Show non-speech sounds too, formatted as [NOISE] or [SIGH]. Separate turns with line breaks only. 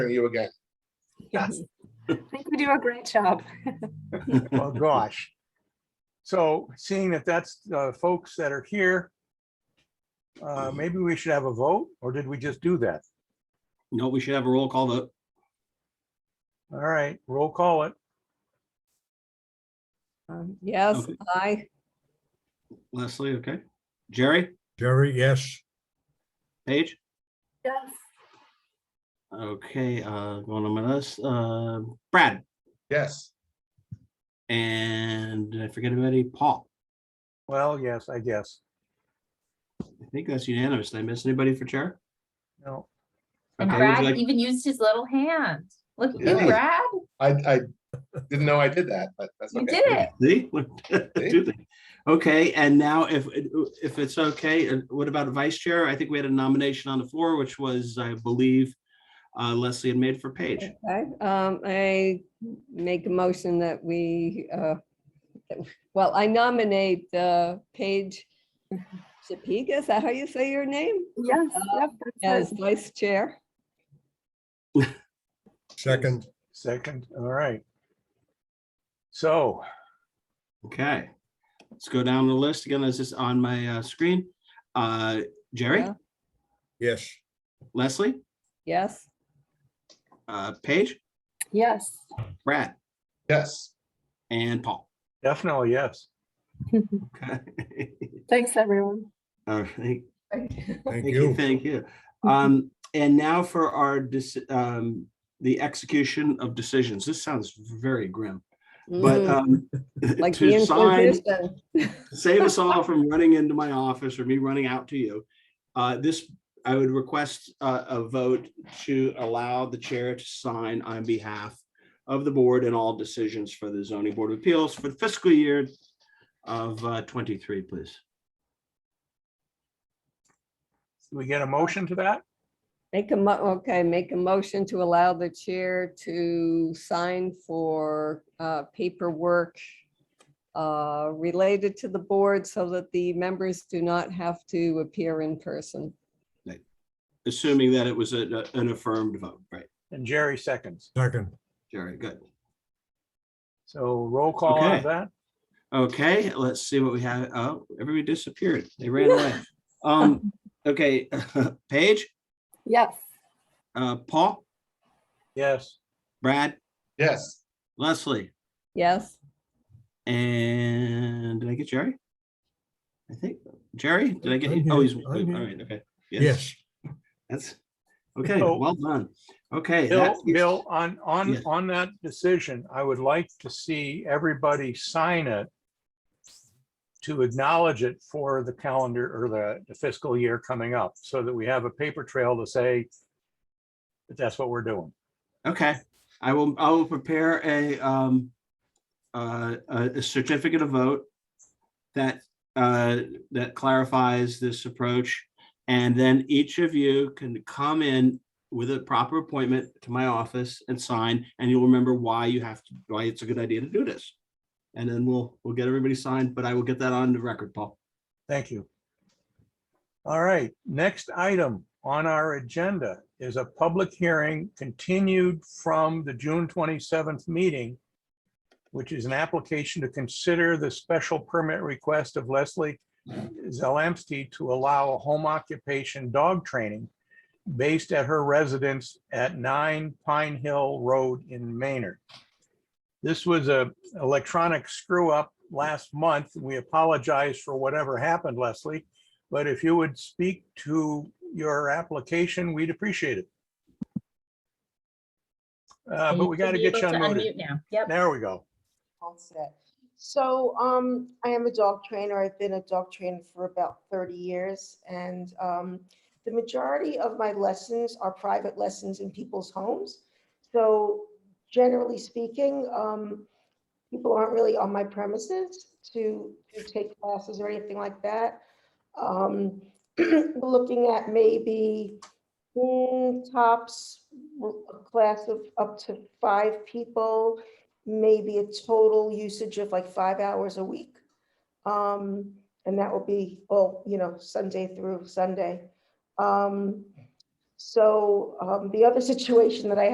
you again.
Yes, I think we do a great job.
[LAUGHS] Oh, gosh. So seeing that that's uh, folks that are here,
Mm-hmm.
uh, maybe we should have a vote, or did we just do that?
No, we should have a roll call vote.
All right, roll call it.
Um, Yes,
Okay.
I,
Leslie, okay. Jerry,
Jerry, yes.
Paige?
Yes.
Okay, uh, going on my list, uh, Brad
Yes,
and did I forget about any Paul.
Well, yes, I guess.
I think that's unanimous. Did I miss anybody for chair?
No,
And
Okay, would you
Brad
like-
even used his little hand. Look at
Yeah.
you, Brad.
I, I didn't know I did that, but that's
You
okay.
did it.
See? [LAUGHS] Do they? Okay, and now if, if it's okay, uh, what about a vice chair? I think we had a nomination on the floor, which was, I believe, uh, Leslie had made for Paige.
okay, um, I make a motion that we, uh, that- well, I nominate uh, Paige Shapiga, is that how you say your name?
Uh, Yes, yep. that's
As
it.
vice chair.
Second,
second, all right. So,
Okay. Let's go down the list again. This is on my uh, screen. Uh, Jerry,
Yeah.
yes.
Leslie,
Yes,
uh, Paige,
Yes.
Brad,
Yes,
and Paul.
definitely, yes.
Okay. [LAUGHS]
Thanks, everyone.
All right.
Thank
Thank you,
you.
thank you. Um, and now for our, deci- um, the execution of decisions. This sounds very grim, but,
mhm,
um, [LAUGHS]
like the
to sign,
Inquisition.
save us all from running into my office or me running out to you. Uh, this, I would request a, a vote to allow the chair to sign on behalf of the board and all decisions for the zoning board of appeals for the fiscal year of uh, twenty-three, please.
Do we get a motion to that?
Make a mo, okay, make a motion to allow the chair to sign for uh, paperwork uh, related to the board so that the members do not have to appear in person.
Assuming that it was a- a- an affirmed vote, right?
And Jerry seconds.
Second,
Jerry, good.
So roll call on
Okay.
that.
Okay, let's see what we have. Oh, everybody disappeared. They ran away. Um, okay, [LAUGHS] Paige,
Yes.
uh, Paul,
Yes,
Brad,
yes.
Leslie.
Yes?
And did I get Jerry? I think Jerry, did I get
I'm
you? Oh,
here,
he's, all
I'm here.
right, okay.
yes.
That's, okay,
So-
well done. Okay. that
Bill,
is-
Bill, on,
Yeah.
on, on that decision, I would like to see everybody sign it to acknowledge it for the calendar or the- the fiscal year coming up, so that we have a paper trail to say that that's what we're doing.
Okay, I will, I will prepare a, um, uh, a a certificate of vote that, uh, that clarifies this approach. And then each of you can come in with a proper appointment to my office and sign, and you'll remember why you have to, why it's a good idea to do this. And then we'll, we'll get everybody signed, but I will get that on the record, Paul.
Thank you. All right, next item on our agenda is a public hearing continued from the June twenty-seventh meeting, which is an application to consider the special permit request of Leslie Zelamsky to allow home occupation dog training based at her residence at nine Pine Hill Road in Maynard. This was a electronic screw up last month. We apologize for whatever happened, Leslie. But if you would speak to your application, we'd appreciate it. Uh,
And
but
you
we
should
got to
be
get you
able to
unmuted.
unmute Now, yep.
There we go.
All set. So um, I am a dog trainer. I've been a dog trainer for about 30 years. And um, the majority of my lessons are private lessons in people's homes. So generally speaking, um, people aren't really on my premises to to take classes or anything like that. Um, [CLEARS THROAT] we're Looking at maybe mm, tops, a class of up to five people maybe a total usage of like five hours a week. Um, and that will be, all you know, Sunday through Sunday. Um, so, um, the other [LAUGHS] situation that I